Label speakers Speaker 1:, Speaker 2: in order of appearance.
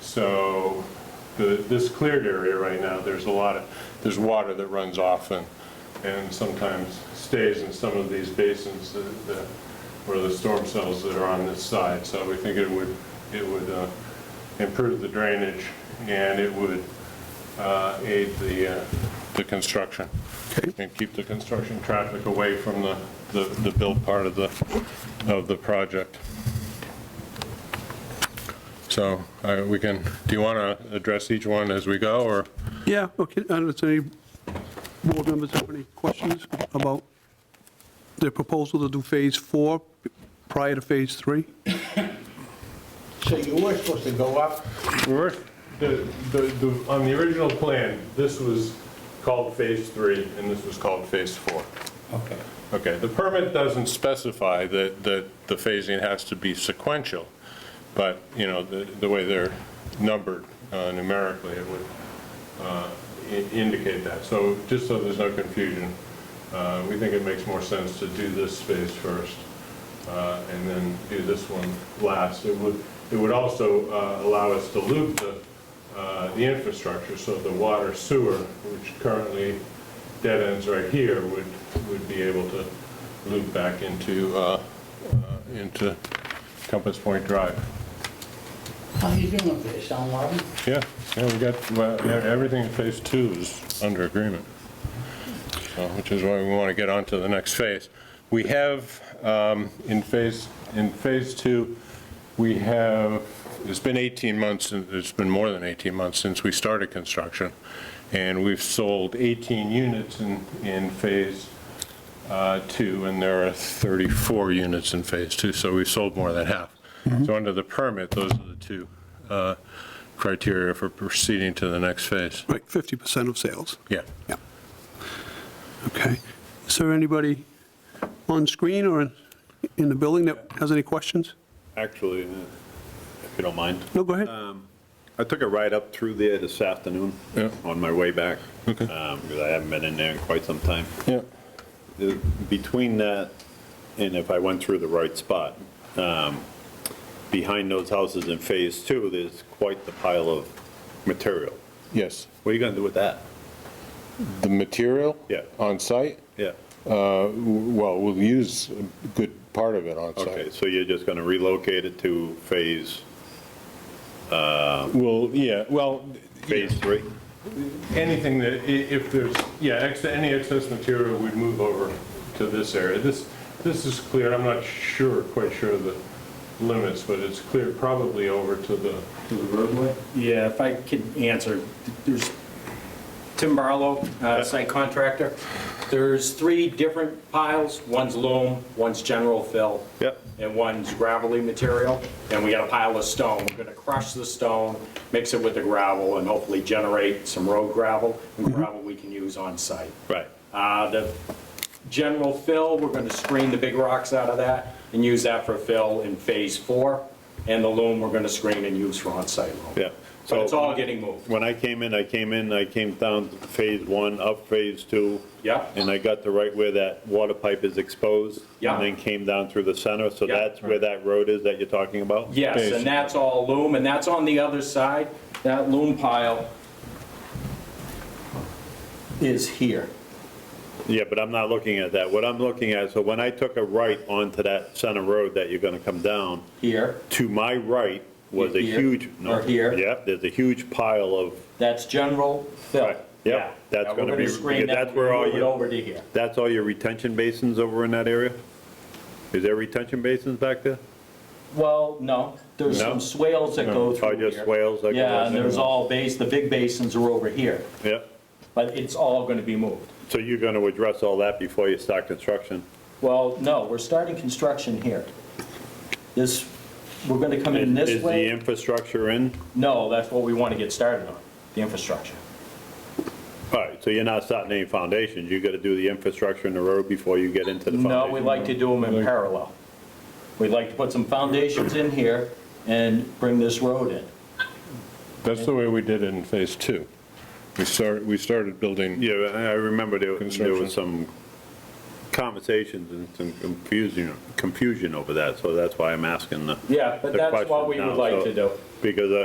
Speaker 1: So the, this cleared area right now, there's a lot of, there's water that runs off and, and sometimes stays in some of these basins that, that- or the storm cells that are on this side. So we think it would, it would uh, improve the drainage and it would uh, aid the, uh, the construction. And keep the construction traffic away from the, the the built part of the, of the project. So uh, we can, do you want to address each one as we go, or?
Speaker 2: Yeah, okay, I don't know if any board members have any questions about their proposal to do Phase 4 prior to Phase 3?
Speaker 3: So you were supposed to go up,
Speaker 1: We're- the- the- the- On the original plan, this was called Phase 3, and this was called Phase 4.
Speaker 3: okay,
Speaker 1: Okay, the permit doesn't specify that, that the phasing has to be sequential, but, you know, the, the way they're numbered uh, numerically, it would uh, i- indicate that. So just so there's no confusion, uh, we think it makes more sense to do this phase first uh, and then do this one last. It would, it would also uh, allow us to loop the, uh, the infrastructure, so the water sewer, which currently dead ends right here, would, would be able to loop back into, uh, uh, into Compass Point Drive.
Speaker 3: how you doing with this, on Marvin?
Speaker 1: Yeah, yeah, we got, well, e- everything in phase two is under agreement, So, which is why we want to get on to the next phase. We have, um, in phase, in phase two, we have, it's been 18 months, and it's been more than 18 months since we started construction, and we've sold 18 units in, in phase uh, two, and there are 34 units in phase two, so we sold more than half. So under the permit, those are the two uh, criteria for proceeding to the next phase.
Speaker 2: Right, 50% of sales,
Speaker 1: Yeah.
Speaker 2: yeah. Okay. Is there anybody on screen or in- in the building that has any questions?
Speaker 4: Actually, uh, if you don't mind,
Speaker 2: No, go ahead.
Speaker 4: I took a ride up through there this afternoon
Speaker 1: Yeah.
Speaker 4: on my way back.
Speaker 1: Okay.
Speaker 4: um, Because I haven't been in there in quite some time.
Speaker 1: Yeah.
Speaker 4: Uh, Between that and if I went through the right spot, um, behind those houses in Phase Two, there's quite the pile of material.
Speaker 1: Yes.
Speaker 4: What are you going to do with that?
Speaker 1: The material?
Speaker 4: Yeah.
Speaker 1: On site?
Speaker 4: Yeah.
Speaker 1: Uh, w- Well, we'll use a good part of it on
Speaker 4: Okay,
Speaker 1: site.
Speaker 4: so you're just going to relocate it to Phase,
Speaker 1: Well, yeah, well,
Speaker 4: Phase Three?
Speaker 1: anything that, i- if there's, yeah, ex- any excess material, we'd move over to this area. This, this is clear, I'm not sure, quite sure of the limits, but it's clear probably over to the,
Speaker 5: To the roadway? Yeah, if I could answer, there's Tim Barlow, uh, site contractor. There's three different piles. One's loam, one's general fill.
Speaker 4: Yep.
Speaker 5: And one's gravelly material. And we got a pile of stone. We're gonna crush the stone, mix it with the gravel, and hopefully generate some road gravel and gravel we can use on site.
Speaker 4: Right.
Speaker 5: Uh, The general fill, we're going to screen the big rocks out of that and use that for fill in Phase 4. And the loom, we're going to screen and use for on-site loom.
Speaker 4: Yeah.
Speaker 5: But it's
Speaker 4: So-
Speaker 5: all getting moved.
Speaker 4: When I came in, I came in, I came down to phase one, up phase two.
Speaker 5: Yeah.
Speaker 4: And I got to right where that water pipe is exposed.
Speaker 5: Yeah.
Speaker 4: And then came down through the center, so
Speaker 5: Yeah.
Speaker 4: that's where that road is that you're talking about?
Speaker 5: Yes, and that's all loom, and that's on the other side. That loom pile is here.
Speaker 4: Yeah, but I'm not looking at that. What I'm looking at, so when I took a right onto that center road that you're gonna come down,
Speaker 5: Here,
Speaker 4: to my right was a
Speaker 5: Here,
Speaker 4: huge. no,
Speaker 5: or here.
Speaker 4: Yep, there's a huge pile of,
Speaker 5: that's general fill.
Speaker 4: Right, yep, that's
Speaker 5: Now,
Speaker 4: gonna
Speaker 5: we're
Speaker 4: be-
Speaker 5: screen that,
Speaker 4: that's where all
Speaker 5: move it
Speaker 4: your-
Speaker 5: Over to here.
Speaker 4: that's all your retention basins over in that area? Is there retention basins back there?
Speaker 6: Well, no, there's
Speaker 4: No?
Speaker 6: some swales that go through
Speaker 4: Oh,
Speaker 6: here.
Speaker 4: just swales that go
Speaker 6: Yeah, and
Speaker 4: in.
Speaker 6: there's all base, the big basins are over here,
Speaker 4: Yep.
Speaker 6: but it's all gonna be moved.
Speaker 4: So you're going to address all that before you start construction?
Speaker 6: Well, no, we're starting construction here. This, we're gonna come in
Speaker 4: Is
Speaker 6: this
Speaker 4: the
Speaker 6: way.
Speaker 4: infrastructure in?
Speaker 6: No, that's what we wanna get started on, the infrastructure.
Speaker 4: All right, so you're not starting any foundations, you got to do the infrastructure in the road before you get into the
Speaker 6: No,
Speaker 4: foundation?
Speaker 6: we like to do them in parallel. We'd like to put some foundations in here and bring this road in.
Speaker 1: that's the way we did it in phase two. We started, we started building
Speaker 4: Yeah, I I remember there there
Speaker 1: Construction.
Speaker 4: was some conversations and some confusion, confusion over that, so that's why I'm asking the the
Speaker 5: Yeah, but that's what
Speaker 4: question
Speaker 5: we
Speaker 4: now,
Speaker 5: would like
Speaker 4: so-
Speaker 5: to do.
Speaker 4: Because